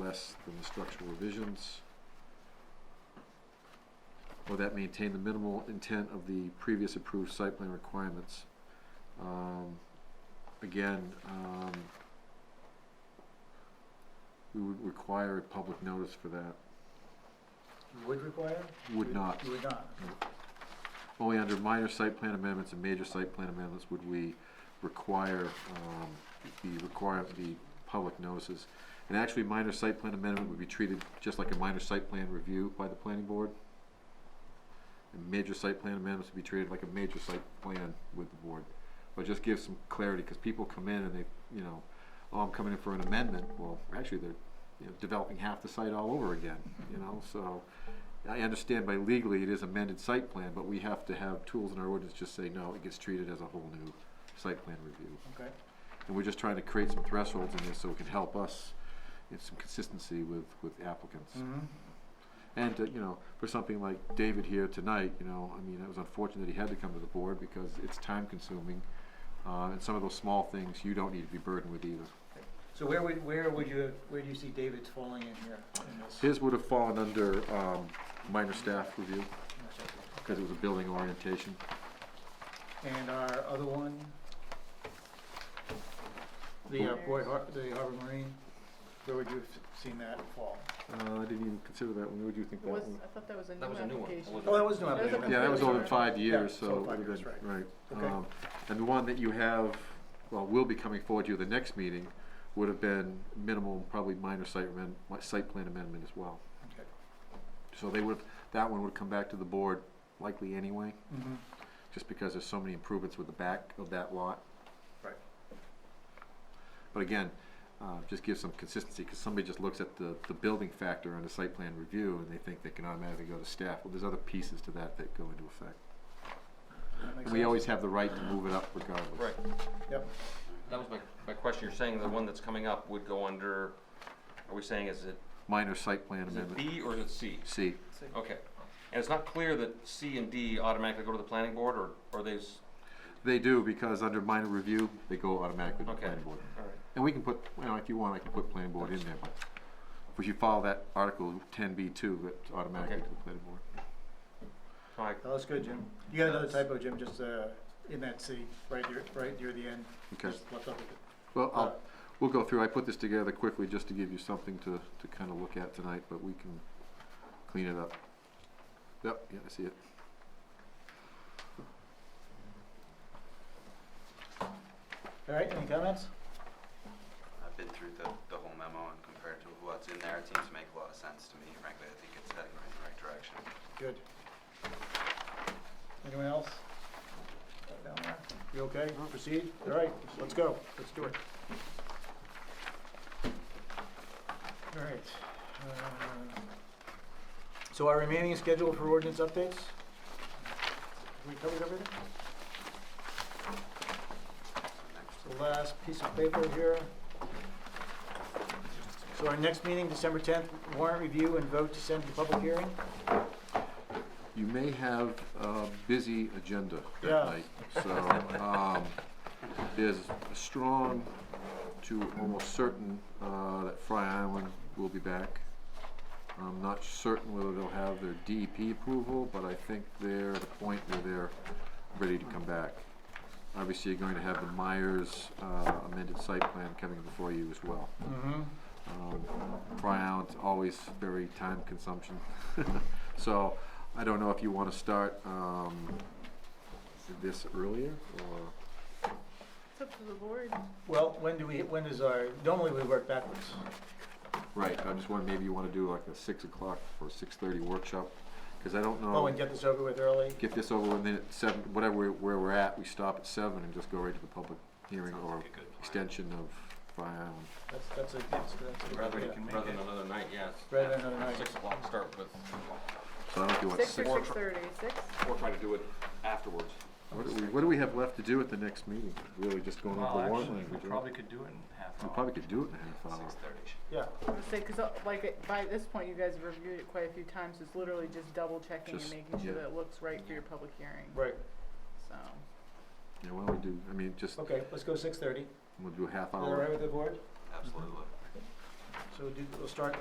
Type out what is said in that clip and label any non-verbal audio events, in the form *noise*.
less than the structural revisions. Or that maintain the minimal intent of the previous approved site plan requirements. Um, again, um, we would require a public notice for that, You would require? would not. You would not. Only under minor site plan amendments and major site plan amendments would we require, um, the require, the public notices. And actually, minor site plan amendment would be treated just like a minor site plan review by the planning board. And major site plan amendments would be treated like a major site plan with the board. But just give some clarity, cause people come in and they, you know, oh, I'm coming in for an amendment, well, actually, they're, you know, developing half the site all over again, you know, so. I understand by legally it is amended site plan, but we have to have tools in our ordinance just say, no, it gets treated as a whole new site plan review. Okay. And we're just trying to create some thresholds in this so it can help us in some consistency with, with applicants. And, uh, you know, for something like David here tonight, you know, I mean, it was unfortunate that he had to come to the board because it's time consuming. Uh, and some of those small things you don't need to be burdened with either. So where would, where would you, where do you see David's falling in here in this? His would have fallen under, um, minor staff review, in this area? because it was a building orientation. And our other one? The uh, Boy Har, the Harbor Marine, where would you have seen that fall? Uh, I didn't even consider that one, what do you think that Was, one? I thought that was a That was a new new one. application. That Oh, that was no That was a application. Yeah, that was Completely older than five years, Yeah, so. so it five would've years, been- Right. Okay. Um, And the one that you have, well, will be coming forward to you the next meeting, would have been minimal, probably minor site amend, mi- site plan amendment as well. Okay. So they would, that one would come back to the board likely anyway, Mhm. just because there's so many improvements with the back of that lot. Right. But again, uh, just give some consistency, because somebody just looks at the, the building factor on the site plan review, and they think they can automatically go to staff. Well, there's other pieces to that that go into effect. That makes And we sense. always have the right to move it up regardless. Right, Yep. that was my, my question, you're saying the one that's coming up would go under, are we saying is it, Minor site plan is it amendment, B or is it C? C. Okay, and it's not clear that C and D automatically go to the planning board, or, or they, s- They do, because under minor review, they go automatically to the Okay. planning board. all right. And we can put, you know, if you want, I can put planning board in there, but if you follow that article ten B two, that's automatically Okay. to the planning board. So I- That was good, Jim. You got another typo, Jim, just, uh, in that C, right near, right near the end. Okay, Just left up with it. well, Uh, I'll, we'll go through, I put this together quickly just to give you something to, to kinda look at tonight, but we can clean it up. Yep, yeah, I see it. All right, any comments? I've been through the, the whole memo and compared to what's in there, it seems to make a lot of sense to me. Frankly, I think it's heading right in the right direction. Good. Anyone else? Down there? You okay? Proceed? All right, let's go. Let's do it. All right. uh, So our remaining schedule for ordinance updates? We covered everything? The last piece of paper here. So our next meeting, December 10th, warrant review and vote to send to public hearing? You may have a busy agenda Yeah. that night, so, um, there's a strong to almost certain, uh, that Fry Island will be back. I'm not certain whether they'll have their DEP approval, but I think they're at a point where they're ready to come back. Obviously, you're going to have the Myers uh, amended site plan coming before you as well. Mm-hmm. Um, Fry Island's always very time consumption. *laughs* so I don't know if you want to start um, this earlier or It's up to the board. Well, when do we, when is our, normally we work backwards. right. I just wondering maybe you want to do like a six o'clock or six thirty workshop because I don't know. Oh, and get this over with early? get this over and then at seven, whatever we- where we're at, we stop at seven and just go right to the public hearing Sounds or like a good plan. extension of Fry Island. That's, that's a, that's, that's a rather good than, idea. rather than another night, yeah. it's- Rather than another night. Six o'clock start with, So I don't know if you want Six six. or six thirty, six? or try to do it afterwards. What do we, what do we have left to do at the next meeting? Really just going over the warrant language, right? could do it in half We probably could do it in a half hour. Six thirty should Yeah, I would say, cause uh, like, it- by this point, you guys have reviewed it quite a few times, it's literally just double checking and Just- making sure yeah. that it looks right for your public hearing, right. so. Yeah, why don't we do, I mean, just, Okay, let's go six thirty. Is we'll do a half that all right hour. with the board? absolutely. So do, we'll start